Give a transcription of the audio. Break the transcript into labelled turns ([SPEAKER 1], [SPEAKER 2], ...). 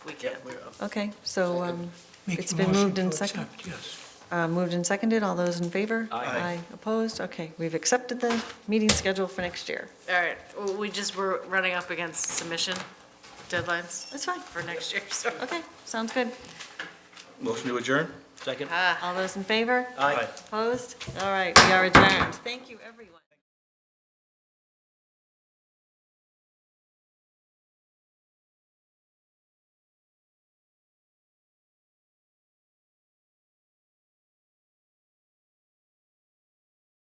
[SPEAKER 1] We can.
[SPEAKER 2] Okay, so um,
[SPEAKER 3] Make
[SPEAKER 2] it's
[SPEAKER 3] a
[SPEAKER 2] been
[SPEAKER 3] motion
[SPEAKER 2] moved
[SPEAKER 3] to
[SPEAKER 2] and seconded.
[SPEAKER 3] accept, Yes.
[SPEAKER 2] Uh, Moved and seconded, all those in favor?
[SPEAKER 4] Aye.
[SPEAKER 2] Opposed? Okay, we've accepted the meeting schedule for next year.
[SPEAKER 1] All right, well, we just were running up against submission deadlines
[SPEAKER 2] That's fine.
[SPEAKER 1] for next year, so.
[SPEAKER 2] Okay, sounds good.
[SPEAKER 4] Motion to adjourn? Second.
[SPEAKER 1] Ah.
[SPEAKER 2] All those in favor?
[SPEAKER 4] Aye.
[SPEAKER 2] Opposed? All right, we are adjourned. Thank you, everyone.